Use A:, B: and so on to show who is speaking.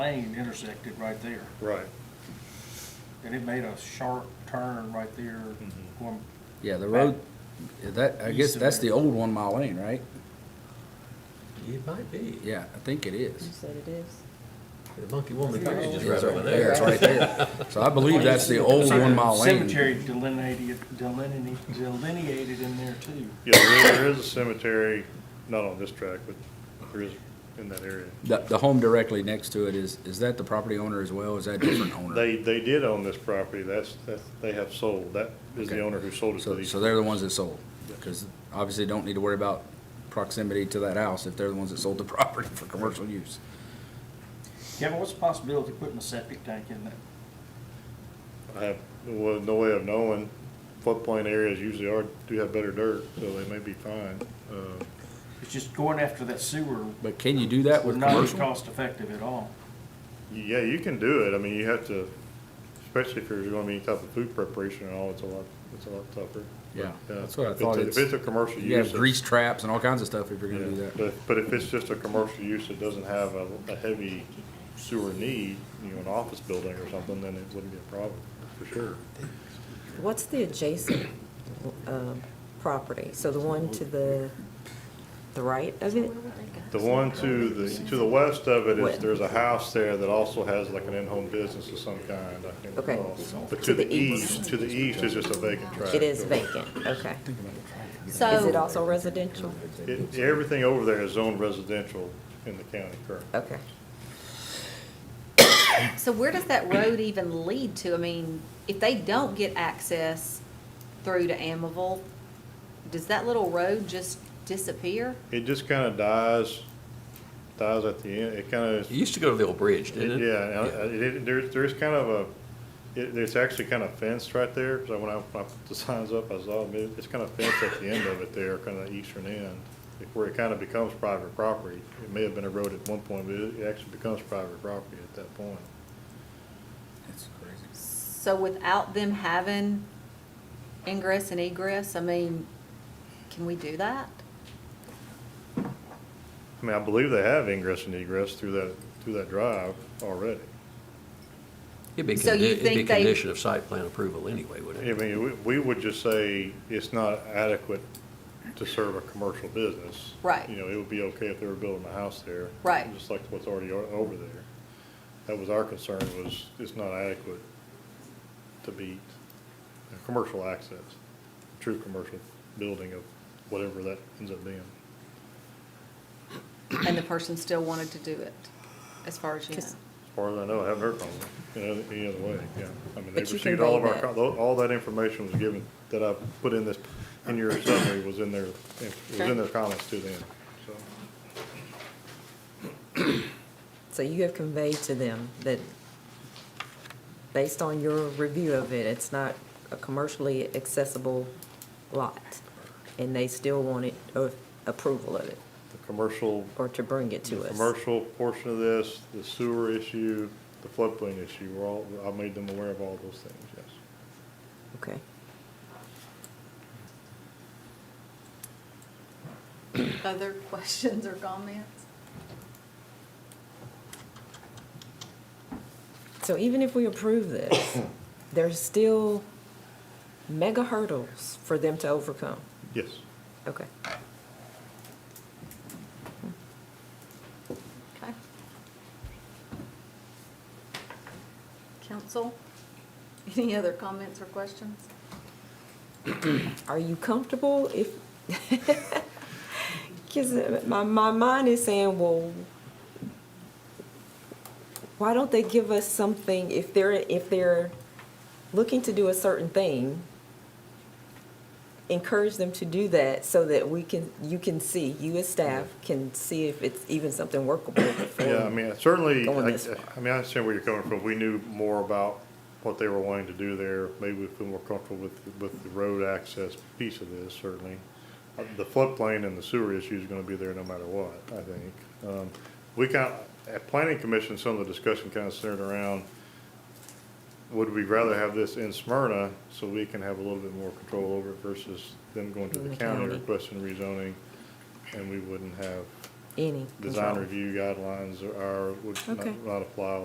A: lane intersected right there,
B: Right.
A: and it made a sharp turn right there.
B: Mm-hmm.
A: going-
C: Yeah, the road, that, I guess
A: East of
C: that's
A: there.
C: the old one mile lane, right?
D: It might be.
C: Yeah, I think it
E: You
C: is.
E: said it is.
D: The monkey woman
E: It's
D: bridge
E: right
D: is
E: there.
D: right over
C: Yeah,
D: there.
C: it's right there. So I believe that's the old
A: Like a
C: one mile lane.
A: Cemetery delineated, delineated, delineated in there too.
B: Yeah, there there is a cemetery, not on this track, but there is in that area.
C: The, the home directly next to it is, is that the property owner as well? Is that different owner?
B: They, they did own this property, that's, that's, they have sold, that is the
C: Okay.
B: owner who sold it to
C: So,
B: these.
C: so they're the ones that sold, because obviously don't need to worry about proximity to that house if they're the ones that sold the property for commercial use.
A: Kevin, what's the possibility of putting a septic tank in there?
B: I have, well, no way of knowing, floodplain areas usually are, do have better dirt, so they may be fine. Uh,
A: It's just going after that sewer
C: But can you do that
A: would
C: with
A: not be
C: commercial?
A: cost effective at all.
B: Yeah, you can do it, I mean, you have to, especially if there's gonna be any type of food preparation and all, it's a lot, it's a lot tougher.
C: Yeah,
B: But, uh,
C: that's what I
B: if
C: thought.
B: it's a- If
C: It's-
B: it's a commercial use.
C: You have
B: it's-
C: grease traps and all kinds of stuff if you're gonna do
B: Yeah,
C: that.
B: But, but if it's just a commercial use that doesn't have a, a heavy sewer need, you know, an office building or something, then it wouldn't be a problem, for sure.
E: What's the adjacent uh, property? So the one to the, the right of it?
B: The one to the, to the west of it is,
E: What?
B: there's a house there that also has like an in-home business of some kind, I can't
E: Okay.
B: recall. But to the east, to the east is just a vacant tract.
E: It is vacant, okay. Is it
F: So,
E: also residential?
B: It- Everything over there is zoned residential in the county currently.
E: Okay.
F: so where does that road even lead to? I mean, if they don't get access through to Amival, does that little road just disappear?
B: It just kind of dies, dies at the end, it kind of
D: It used to go to the old bridge,
B: It-
D: didn't it?
B: Yeah, and I- it- it, there's, there's kind of a, it, it's actually kind of fenced right there, because when I, when I put the signs up, I saw, it, it's kind of fenced at the end of it there, kind of eastern end, where it kind of becomes private property. It may have been a road at one point, but it it actually becomes private property at that point.
C: That's crazy.
F: So without them having ingress and egress, I mean, can we do that?
B: I mean, I believe they have ingress and egress through that, through that drive already.
D: It'd be,
F: So
D: condi-
F: you
D: it'd be
F: think they-
D: condition of site plan approval anyway, wouldn't
B: I
D: it?
B: mean, we, we would just say it's not adequate to serve a commercial business.
F: Right.
B: You know, it would be okay if they were building a house there.
F: Right.
B: Just like what's already o- over there. That was our concern, was it's not adequate to meet a commercial access, true commercial building of whatever that ends up being.
F: And the person still wanted to do it, as far as you know?
E: Just-
B: As far as I know, I haven't heard from them, you know, any other way, yeah. I mean, they
E: But you can
B: received all of
E: read
B: our,
E: that.
B: co- all that information was given, that I put in this, in your summary was in their, was in their comments to them, so.
E: So you have conveyed to them that, based on your review of it, it's not a commercially accessible lot, and they still wanted uh, approval of it,
B: The commercial,
E: or to bring it
B: the
E: to us.
B: commercial portion of this, the sewer issue, the floodplain issue, we're all, I made them aware of all those things, yes.
E: Okay.
F: Other questions or comments?
E: So even if we approve this, there's still mega hurdles for them to overcome.
B: Yes,
E: Okay.
F: Okay. Council, any other comments or questions?
E: Are you comfortable if, because my, my mind is saying, well, why don't they give us something if they're, if they're looking to do a certain thing? Encourage them to do that so that we can, you can see, you as staff can see if it's even something workable. before
B: yeah, I mean, certainly, I,
E: Going this far.
B: I mean, I understand where you're coming from, we knew more about what they were wanting to do there, maybe we feel more comfortable with, with the road access piece of this, certainly. Uh, The floodplain and the sewer issue is gonna be there no matter what, I think. Um, We kind, at planning commission, some of the discussion kind of centered around, would we rather have this in Smyrna so we can have a little bit more control over it versus them going to the
E: The
B: county
E: county.
B: requesting rezoning? And we wouldn't have
E: any.
B: design
E: control.
B: review guidelines are, would
E: Okay.
B: not- not apply